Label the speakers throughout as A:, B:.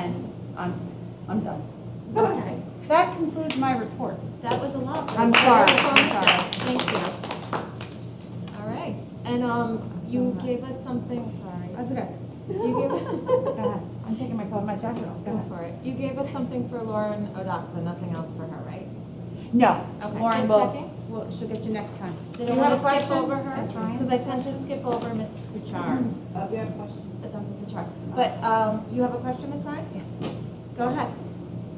A: I'm, I'm done.
B: Okay,
A: That concludes my report.
B: that was a lot.
A: I'm sorry,
B: That was
A: I'm sorry.
B: promising. Thank you. All right, and, um, you gave us something, sorry.
A: That's okay.
B: You
A: Go ahead. I'm taking my, coat- my jacket off.
B: gave,
A: Go
B: go
A: ahead.
B: for it. You gave us something for Lauren Odoxa, nothing else for her, right?
A: No.
B: Okay,
A: Lauren
B: just
A: will,
B: checking.
A: will, she'll get you next time.
B: Did
A: You
B: I
A: have a
B: want to skip
A: question?
B: over her?
A: That's fine. Oh,
B: Because I tend to skip over Mrs. Kuchar.
C: Uh, we have a question.
B: It's on to Kuchar. But, um, you have a question, Ms. Ryan? Yeah. Go ahead.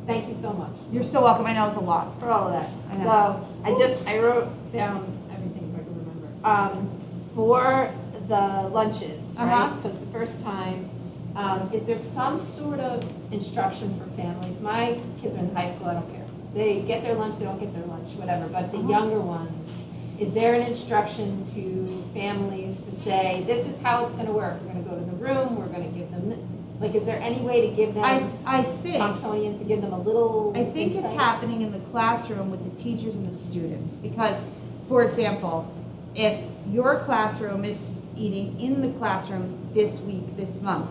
C: Thank you so much
A: You're so welcome. I know it's a lot.
C: for all of that.
A: I know.
C: So I just, I wrote down everything if I can remember. Um, for the lunches,
A: Uh-huh.
C: right? So it's the first time. Um, is there some sort of instruction for families? My kids are in high school, I don't care. They get their lunch, they don't get their lunch, whatever, but the
A: Uh-huh.
C: younger ones, is there an instruction to families to say, this is how it's gonna work? We're gonna go to the room, we're gonna give them, th-" like, is there any way to give them?
A: I, I think.
C: Thompsonian to give them a little.
A: I think it's
C: insight.
A: happening in the classroom with the teachers and the students, because, for example, if your classroom is eating in the classroom this week, this month,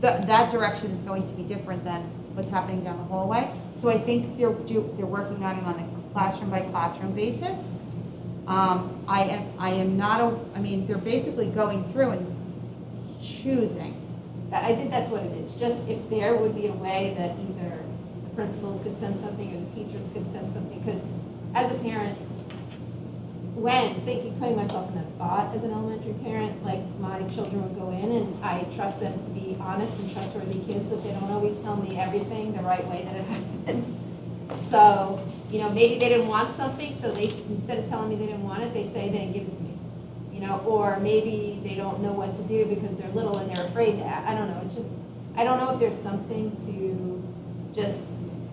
A: that, that direction is going to be different than what's happening down the hallway. So I think they're, do- they're working on it on a classroom by classroom basis. Um, I am, I am not, a- I mean, they're basically going through and choosing.
C: That- I think that's what it is, just if there would be a way that either the principals could send something or the teachers could send something, because as a parent, when thinking, putting myself in that spot as an elementary parent, like my children would go in and I trust them to be honest and trustworthy kids, but they don't always tell me everything the right way that it happened. So, you know, maybe they didn't want something, so they, instead of telling me they didn't want it, they say they didn't give it to me. you know, or maybe they don't know what to do because they're little and they're afraid to, a- I don't know, it's just, I don't know if there's something to just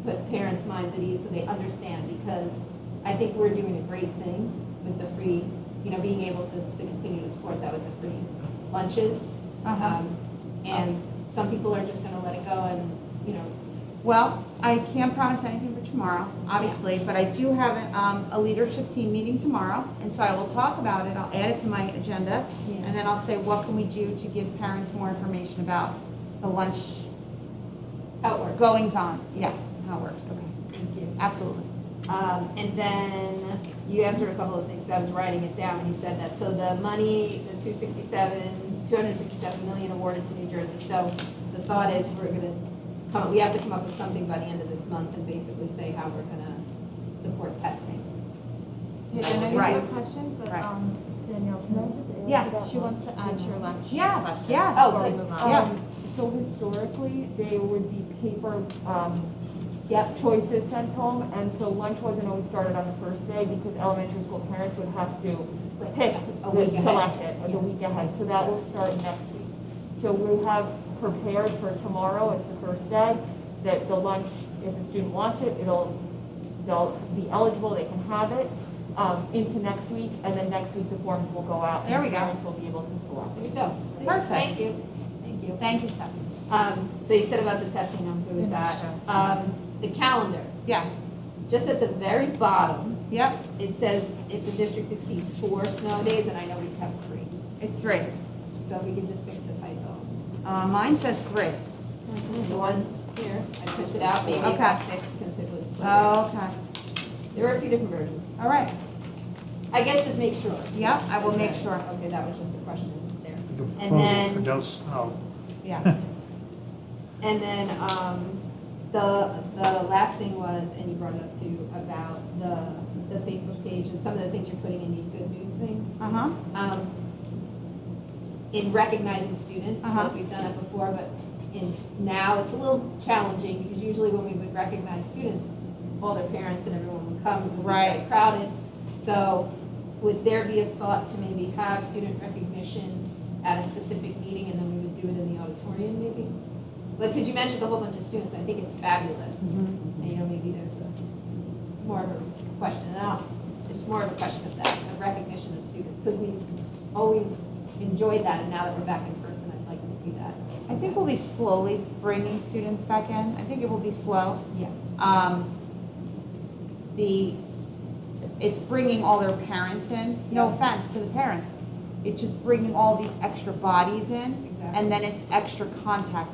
C: put parents' minds at ease so they understand, because I think we're doing a great thing with the free, you know, being able to, to continue to support that with the free lunches. Um, And some people are just gonna let it go and, you know,
A: Well, I can't promise anything for tomorrow, obviously, but I do have um, a leadership team meeting tomorrow, and so I will talk about it, I'll add it to my agenda, and then I'll say, what can we do to give parents more information about the lunch
C: how it works.
A: goings-on? Yeah, how it works, okay,
C: Thank you.
A: absolutely.
C: Um, and then you answered a couple of things, I was writing it down when you said that, so the money, the two sixty-seven, two hundred sixty-seven million awarded to New Jersey, so the thought is we're gonna come, we have to come up with something by the end of this month and basically say how we're gonna support testing.
B: Yeah, I know you
A: Right.
B: have a question, but,
A: Right.
B: um, Danielle, can I just ask
A: Yeah,
B: about- um, She wants to add to your lunch
A: Yes,
B: question
A: yes.
B: before
C: Oh,
B: we
C: good.
B: move on.
A: Yeah.
D: Um, So historically, they would be paper um,
C: Yep.
D: choices sent home, and so lunch wasn't always started on the first day because elementary school parents would have to pick,
C: A week
D: the-
C: ahead.
D: select it the week ahead, so that will start next week. So we have prepared for tomorrow, it's the first day, that the lunch, if a student wants it, it'll, they'll be eligible, they can have it um, into next week, and then next week the forms will go out. and
A: There we go.
D: Parents will be able to select.
C: There you go. See?
A: Perfect.
C: Thank you, thank you.
A: Thank you, Stephanie.
C: Um, so you said about the testing, I'm good with that. Um, the calendar,
A: Yeah,
C: just at the very bottom,
A: yep,
C: It says if the district exceeds four snow days, and I know we just have three,
A: it's three.
C: so we can just fix the typo.
A: Uh, Mine says three.
C: This is the one here, I printed out, maybe it got fixed since it was.
A: Okay,
C: There were a few different versions.
A: all right,
C: I guess just make sure.
A: Yep, I will make sure.
C: Okay, that was just the question there.
E: The
C: then-
E: proposal for oh, no snow.
A: yeah.
C: And then, um, the, the last thing was, and you brought it up too, about the, the Facebook page and some of the things you're putting in these good news things.
A: Uh-huh,
C: um, in recognizing students,
A: Uh-huh.
C: like we've done it before, but in, now it's a little challenging, because usually when we would recognize students, all their parents and everyone would come, it would be very
A: Right.
C: crowded. So would there be a thought to maybe have student recognition at a specific meeting, and then we would do it in the auditorium maybe? Like, because you mentioned a whole bunch of students, I think it's fabulous,
A: Mhm.
C: and, you know, maybe there's a, it's more of a question, and I don't- it's more of a question of that, the recognition of students, because we always enjoyed that, and now that we're back in person, I'd like to see that.
A: I think we'll be slowly bringing students back in. I think it will be slow.
C: Yeah.
A: um, the, it's bringing all their parents in, no
C: Yeah.
A: offense to the parents. It's just bringing all these extra bodies in,
C: Exactly.
A: and then it's extra contact